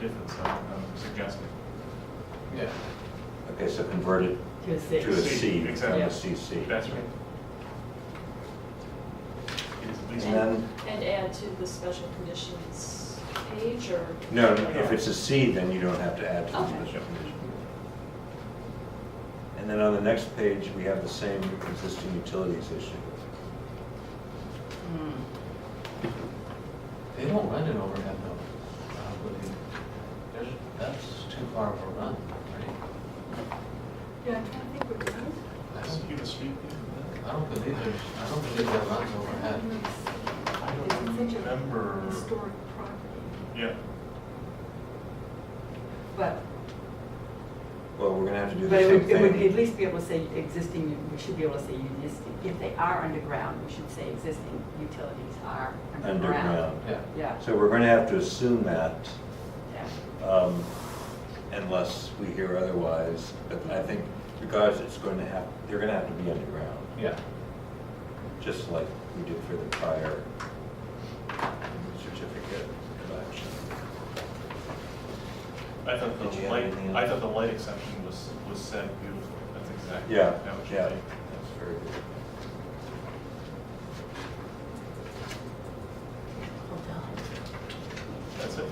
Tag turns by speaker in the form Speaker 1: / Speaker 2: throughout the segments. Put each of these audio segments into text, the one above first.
Speaker 1: difference I'm I'm suggesting.
Speaker 2: Yeah.
Speaker 3: Okay, so convert it
Speaker 4: to a
Speaker 3: to a
Speaker 4: six.
Speaker 3: C,
Speaker 1: Exactly.
Speaker 3: from a CC.
Speaker 1: That's right. It is at least,
Speaker 3: And then-
Speaker 5: And add to the special conditions page or?
Speaker 3: No, no, if it's a C, then you don't have to add to the
Speaker 5: Okay.
Speaker 3: special condition. And then on the next page, we have the same existing utilities issue.
Speaker 4: Hmm.
Speaker 2: They don't run an overhead though. uh, with the- there's- That's too far of a run, right?
Speaker 5: Yeah, I think we're done.
Speaker 2: I
Speaker 1: that's
Speaker 2: don't-
Speaker 1: you the street.
Speaker 2: I don't believe there's, I don't believe that runs overhead.
Speaker 1: I don't remember.
Speaker 5: Historic property.
Speaker 1: Yeah,
Speaker 4: But,
Speaker 3: Well, we're gonna have to do the
Speaker 4: but it
Speaker 3: same
Speaker 4: would, it would at
Speaker 3: thing.
Speaker 4: least be able to say existing, we should be able to say existing, if they are underground, we should say existing utilities are underground.
Speaker 3: Underground.
Speaker 2: Yeah.
Speaker 4: Yeah,
Speaker 3: So we're gonna have to assume that
Speaker 4: yeah.
Speaker 3: um, unless we hear otherwise. But I think regardless, it's going to have, they're gonna have to be underground,
Speaker 2: Yeah.
Speaker 3: just like we did for the prior certificate of action.
Speaker 1: I thought
Speaker 3: Did
Speaker 1: the
Speaker 3: you have uh,
Speaker 1: light,
Speaker 3: anything
Speaker 1: I
Speaker 3: else?
Speaker 1: thought the light exception was, was said beautifully. That's exactly.
Speaker 3: Yeah,
Speaker 1: that was
Speaker 3: yeah,
Speaker 1: right.
Speaker 3: that's very good.
Speaker 1: That's it.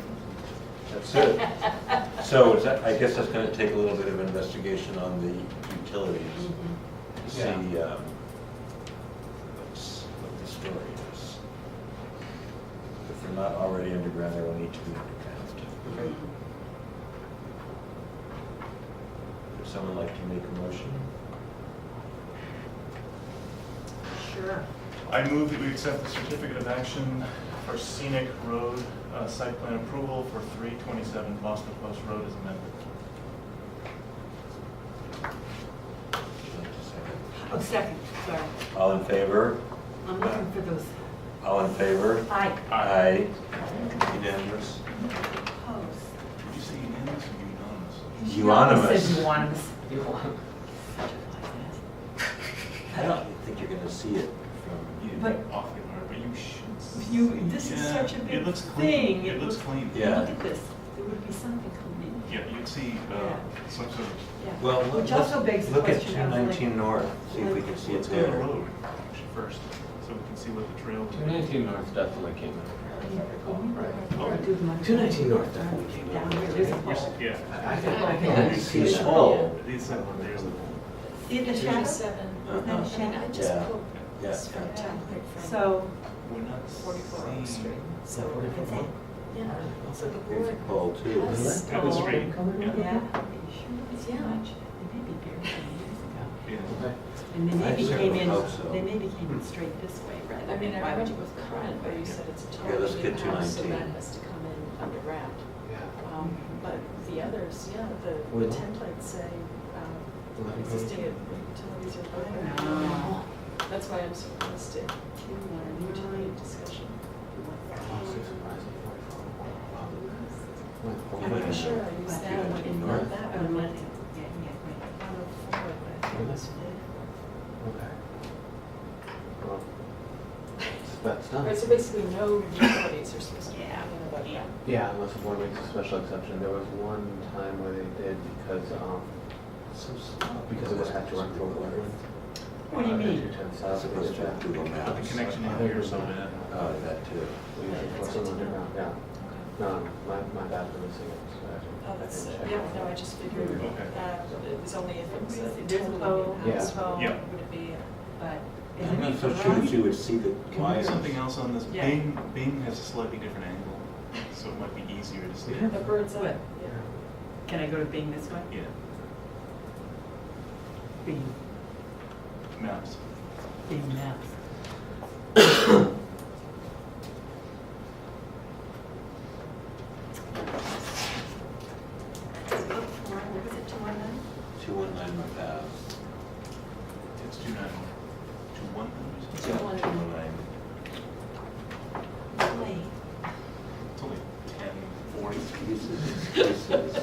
Speaker 3: That's it. So is that- I guess that's gonna take a little bit of investigation on the utilities,
Speaker 4: Mhm.
Speaker 3: to see
Speaker 2: Yeah.
Speaker 3: um, what's, what the story is. If they're not already underground, they will need to be underground.
Speaker 2: Okay.
Speaker 3: Would someone like to make a motion?
Speaker 4: Sure.
Speaker 1: I move that we accept the certificate of action for scenic road uh, site plan approval for 327 Boston Post Road as amended.
Speaker 3: Would you like to second?
Speaker 4: Oh, second, sorry.
Speaker 3: All in favor?
Speaker 4: I'm looking for those.
Speaker 3: All in favor?
Speaker 4: I
Speaker 3: Aye. Unanimous?
Speaker 4: oppose.
Speaker 1: Did you say unanimous or unanimous?
Speaker 4: You
Speaker 3: Unanimous.
Speaker 4: said Euonymus.
Speaker 2: You want-
Speaker 3: I don't think you're gonna see it from you.
Speaker 4: But-
Speaker 1: Awfully hard, but you should. see
Speaker 4: You,
Speaker 1: it.
Speaker 4: this is
Speaker 1: Yeah,
Speaker 4: such a
Speaker 1: It
Speaker 4: big
Speaker 1: looks
Speaker 4: thing.
Speaker 1: clean. It looks clean.
Speaker 3: Yeah.
Speaker 4: Look at this, there would be something coming
Speaker 1: Yeah, you'd see uh, some sort of,
Speaker 4: in. Yeah.
Speaker 3: Well, look,
Speaker 4: Which also begs the
Speaker 3: look at
Speaker 4: question of like.
Speaker 3: 219 North, see if we can see it
Speaker 1: let's go to the
Speaker 3: there.
Speaker 1: road actually first, so we can see what the trail.
Speaker 2: 219 North definitely came in overhead, if I recall, right?
Speaker 4: Two
Speaker 2: 219 North definitely came
Speaker 4: Down
Speaker 2: in
Speaker 4: here,
Speaker 2: overhead.
Speaker 4: there's a
Speaker 1: We're s-
Speaker 4: hole.
Speaker 1: Yeah.
Speaker 2: I I think, I think I
Speaker 3: You
Speaker 2: can
Speaker 3: see
Speaker 2: see
Speaker 3: the
Speaker 2: that.
Speaker 3: hole.
Speaker 1: These, uh, there's the whole.
Speaker 4: See the shadow?
Speaker 5: Thirty-seven.
Speaker 3: Uh-huh.
Speaker 5: I mean, I just
Speaker 3: Yeah.
Speaker 5: pulled
Speaker 3: Yeah,
Speaker 5: this
Speaker 3: yeah.
Speaker 5: from template from
Speaker 4: So,
Speaker 1: We're not
Speaker 5: forty-four Oak Street.
Speaker 1: seeing.
Speaker 5: So
Speaker 2: Forty four
Speaker 5: it's a-
Speaker 2: Oak.
Speaker 5: Yeah, so the
Speaker 3: Here's a
Speaker 5: board
Speaker 3: pole too.
Speaker 5: has
Speaker 2: Really?
Speaker 1: That was
Speaker 5: all-
Speaker 1: straight.
Speaker 4: yeah.
Speaker 1: Yeah.
Speaker 5: Yeah.
Speaker 4: They maybe buried them years ago.
Speaker 1: Yeah.
Speaker 2: Okay.
Speaker 4: And they
Speaker 3: I
Speaker 4: maybe
Speaker 3: certainly
Speaker 4: came in,
Speaker 3: hope so.
Speaker 4: they maybe came in straight this way rather
Speaker 5: I mean,
Speaker 4: than,
Speaker 5: I
Speaker 4: why would you
Speaker 5: remember
Speaker 4: go
Speaker 5: with current, where you said it's a
Speaker 3: Yeah, let's
Speaker 5: totally new
Speaker 3: get
Speaker 5: house, so
Speaker 3: 219.
Speaker 5: that has to come in underground.
Speaker 2: Yeah.
Speaker 5: Um,
Speaker 1: Mm-hmm.
Speaker 5: But the others, yeah, the the
Speaker 2: Will.
Speaker 5: templates say um, existing utilities are
Speaker 4: No.
Speaker 1: Ah.
Speaker 5: fine. That's why I'm surprised at our utility discussion.
Speaker 2: Oh, six surprises, forty-four. Wow. Went
Speaker 5: I'm
Speaker 2: overhead.
Speaker 5: pretty sure I used that one,
Speaker 3: in
Speaker 5: not
Speaker 3: North.
Speaker 5: that one, but
Speaker 4: Yeah, yeah,
Speaker 5: one of four, but I think it was four.
Speaker 2: Okay. Well, That's
Speaker 5: All
Speaker 2: done.
Speaker 5: right, so basically no utilities are supposed to be in
Speaker 4: Yeah.
Speaker 5: the budget.
Speaker 2: Yeah, unless the board makes a special exception. There was one time where they did because, um, because it would have to run through a wetland.
Speaker 4: right. What do you mean?
Speaker 3: Uh, As opposed to Google
Speaker 1: The
Speaker 3: Maps.
Speaker 1: connection in here is so bad.
Speaker 3: Oh, that too.
Speaker 2: What's on underground, yeah. No, my, my bad for missing it. so I didn't-
Speaker 5: Oh, that's,
Speaker 2: I
Speaker 5: it.
Speaker 2: didn't check.
Speaker 5: yeah, no, I just figured
Speaker 1: Okay.
Speaker 5: that it was only if it was a
Speaker 4: There's a
Speaker 5: totally
Speaker 4: vote.
Speaker 5: new
Speaker 2: Yeah.
Speaker 5: house, vote, would
Speaker 1: Yeah.
Speaker 5: it be?
Speaker 4: but. is
Speaker 3: I'm
Speaker 4: it
Speaker 3: not so
Speaker 4: for
Speaker 3: sure
Speaker 4: us?
Speaker 3: that you would see the
Speaker 1: Can we do
Speaker 3: lines.
Speaker 1: something else on this?
Speaker 4: Yeah.
Speaker 1: Bing, Bing has a slightly different angle, so it might be easier to see.
Speaker 2: Yeah.
Speaker 5: A bird's eye,
Speaker 4: What?
Speaker 5: yeah.
Speaker 4: Can I go to Bing this way?
Speaker 1: Yeah,
Speaker 4: Bing,
Speaker 1: maps.
Speaker 4: Bing Maps. What was it, two one nine?
Speaker 3: 219 North Ave.
Speaker 1: It's two nine, two one nine or
Speaker 5: Two
Speaker 1: something?
Speaker 3: Yeah,
Speaker 5: one.
Speaker 3: 219.
Speaker 1: It's only ten forty.
Speaker 3: Excuses, excuses.
Speaker 4: Eh?
Speaker 1: Uh,